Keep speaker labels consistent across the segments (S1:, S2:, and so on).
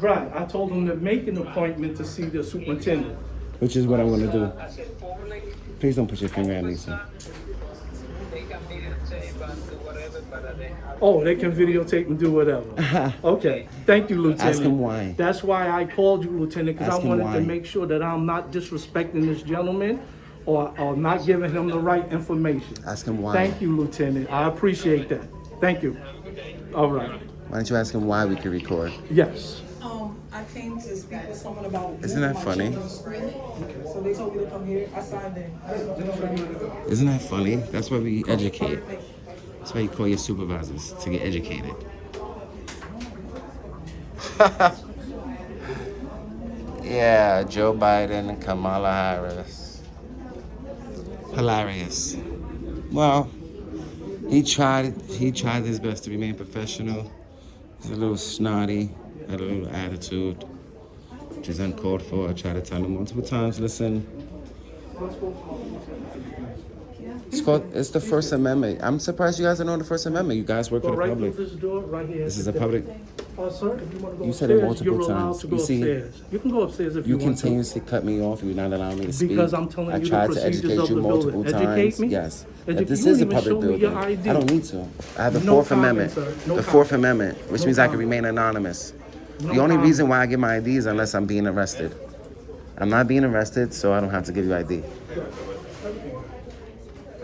S1: Right, I told him to make an appointment to see the superintendent.
S2: which is what I'm gonna do.
S3: I said formally,
S2: Please don't put your finger at me,
S3: it's
S2: sir.
S3: not, they can be the same, but whatever, but they have.
S1: Oh, they can videotape and do whatever. Okay, thank you, Lieutenant.
S2: Ask him why.
S1: That's why I called you, Lieutenant, because
S2: Ask
S1: I
S2: him
S1: wanted
S2: why.
S1: to make sure that I'm not disrespecting this gentleman or, or not giving him the right information.
S2: Ask him why.
S1: Thank you, Lieutenant. I appreciate that. Thank you. All right.
S2: Why don't you ask him why we can record?
S1: Yes.
S4: Um, I came to speak with someone about.
S2: Isn't that
S4: my
S2: funny?
S4: children's school. So they told me to come here. I signed in.
S2: Isn't that funny? That's why we educate. That's why you call your supervisors to get educated. yeah, Joe Biden and Kamala Harris. Hilarious. Well, he tried he tried his best to remain professional. He's a little snotty, had a little attitude, which is uncalled for. I tried to tell him multiple times, listen, It's called. It's the First Amendment. I'm surprised you guys don't know the First Amendment. You guys work for
S1: Go
S2: the
S1: right through
S2: public.
S1: this door, right here.
S2: This is a public.
S1: Uh, sir, if you want to go
S2: You said it
S1: upstairs, you're
S2: multiple
S1: allowed
S2: times.
S1: to go
S2: You see-
S1: upstairs. You can go upstairs if you
S2: You
S1: want to.
S2: continuously cut me off. You're not allowing me to speak.
S1: Because I'm telling
S2: I
S1: you the
S2: tried to
S1: procedures
S2: educate
S1: of
S2: you
S1: the building.
S2: multiple
S1: Educate
S2: times.
S1: me?
S2: Yes.
S1: Edu-
S2: But this
S1: you
S2: is a
S1: didn't even
S2: public
S1: show me
S2: building.
S1: your ID.
S2: I don't need to. I have the
S1: No
S2: Fourth
S1: comment,
S2: Amendment.
S1: sir. No
S2: the
S1: comment.
S2: Fourth Amendment, which
S1: No
S2: means I can
S1: comment.
S2: remain anonymous. the
S1: No
S2: only
S1: comment.
S2: reason why I get my ID is unless I'm being arrested. I'm not being arrested, so I don't have to give you ID.
S5: How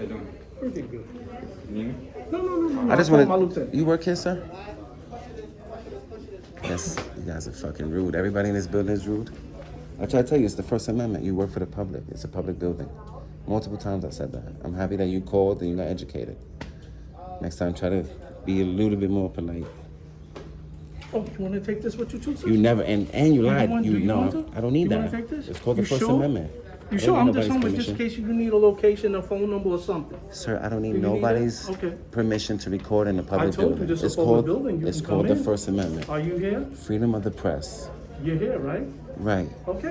S5: you doing?
S1: Pretty good.
S5: You?
S1: No, no, no, no.
S2: I just
S1: I'll call
S2: want
S1: my lieutenant.
S2: to. You work here, sir? Yes, you guys are fucking rude. Everybody in this building is rude. I try to tell you, it's the First Amendment. You work for the public. It's a public building. Multiple times I said that. I'm happy that you called and you got educated. Next time, try to be a little bit more polite.
S1: Oh, you want to take this with you too, sir?
S2: You never and and you
S1: You
S2: lied.
S1: want-
S2: You,
S1: do you
S2: know,
S1: want to?
S2: I don't need
S1: You wanna
S2: that.
S1: take this?
S2: It's called
S1: You
S2: the First
S1: sure?
S2: Amendment.
S1: You
S2: I don't
S1: sure?
S2: need
S1: I'm just
S2: nobody's
S1: hungry, just in
S2: permission.
S1: case you need a location, a phone number or something.
S2: Sir, I don't need
S1: Do you need that?
S2: nobody's
S1: Okay.
S2: permission to record in a public
S1: told you
S2: building.
S1: this is a
S2: it's
S1: public
S2: called
S1: building. You
S2: it's
S1: can
S2: called
S1: come
S2: the
S1: in.
S2: First Amendment.
S1: Are you here?
S2: Freedom of the press.
S1: You're here, right?
S2: Right.
S1: Okay.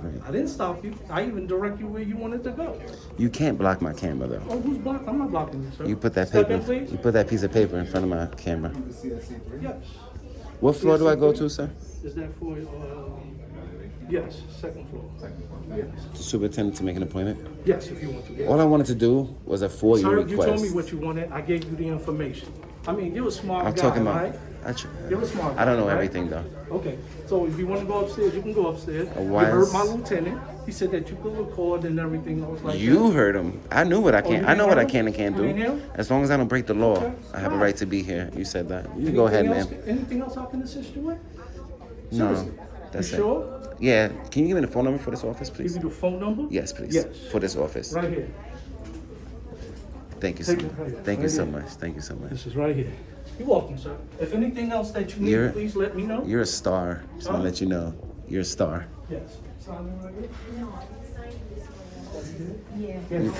S2: Right.
S1: I didn't stop you. I even direct you where you wanted to go.
S2: You can't block my camera though.
S1: Oh, who's blocked? I'm not blocking you, sir.
S2: You put that
S1: Step
S2: paper.
S1: in,
S2: You
S1: please.
S2: put that piece of paper in front of my camera.
S1: Yes.
S2: What floor do I go to, sir?
S1: Is that for, uh, yes, second floor. Yes.
S2: The superintendent to make an appointment.
S1: Yes, if you want to.
S2: All I wanted to do was a FOIA
S1: Sir, you told me
S2: request.
S1: what you wanted. I gave you the information. I mean, you're a smart
S2: I'm
S1: guy,
S2: talking
S1: right?
S2: about. I, tr-
S1: You're a smart
S2: I don't
S1: guy,
S2: know
S1: right?
S2: everything though.
S1: Okay, so if you want to go upstairs, you can go upstairs.
S2: why
S1: you heard
S2: is-
S1: my lieutenant. He said that you could record and everything. I was like, Oh,
S2: You heard him. I knew what I
S1: you
S2: can. not I
S1: didn't
S2: know what
S1: hear
S2: I can and
S1: him?
S2: can't
S1: You didn't hear
S2: do.
S1: him?
S2: As long as I don't break the law,
S1: Okay,
S2: I have a
S1: fine.
S2: right to be here. You said that. You
S1: "Anything
S2: can go ahead,
S1: else-
S2: ma'am.
S1: Anything else I can assist you with?
S2: No, that's
S1: you
S2: it.
S1: sure?
S2: Yeah. Can you give me the phone number for this office,
S1: Give
S2: please?
S1: you the phone number?
S2: Yes, please.
S1: Yes.
S2: For this office.
S1: Right here.
S2: Thank you so
S1: Take
S2: much.
S1: it right-
S2: Thank you
S1: right
S2: so
S1: here.
S2: much. Thank you so much.
S1: This is right here. You're welcome, sir. If anything else that you need,
S2: You're-
S1: please let me know.
S2: You're a star. Just want to let you know. You're a star.
S1: Yes. Sign in right here.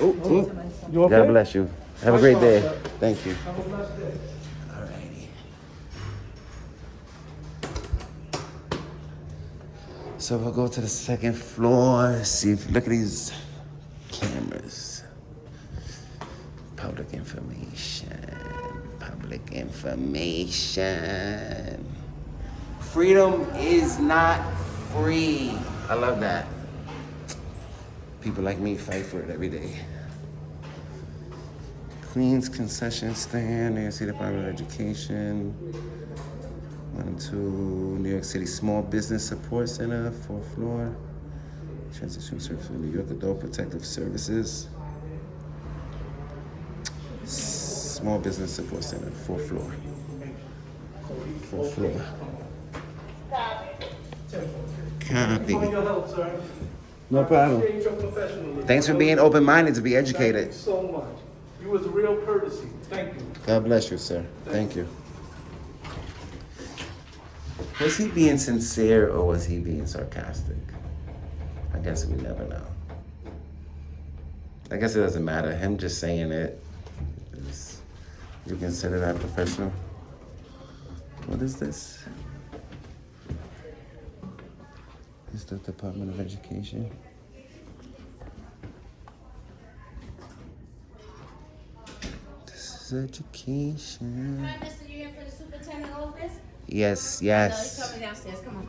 S2: Oh, oh.
S1: You okay?
S2: God bless you. Have a
S1: Nice
S2: great
S1: talk,
S2: day.
S1: sir.
S2: Thank you.
S1: Have a blessed day.
S2: Alrighty. So we'll go to the second floor. See, if, look at these cameras. Public information. Public information. Freedom is not free. I love that. People like me fight for it every day. Queens concession stand, New York City Department of Education. One, two, New York City Small Business Support Center, fourth floor. Transition Service for New York Adult Protective Services. Small Business Support Center, fourth floor. Fourth floor.
S1: For
S2: Copy.
S1: your help, sir.
S2: No
S1: I
S2: problem.
S1: appreciate your professionalism.
S2: Thanks for being open minded to be
S1: Thank you
S2: educated.
S1: so much. You was real courtesy. Thank you.
S2: God bless you, sir. Thank you. Was he being sincere or was he being sarcastic? I guess we never know. I guess it doesn't matter. Him just saying it is. You consider that professional? What is this? Is the Department of Education? This is education.
S6: Hi, Mr. You here for the superintendent office?
S7: Yes,
S2: No, he
S7: yes.
S2: told me downstairs. Come on.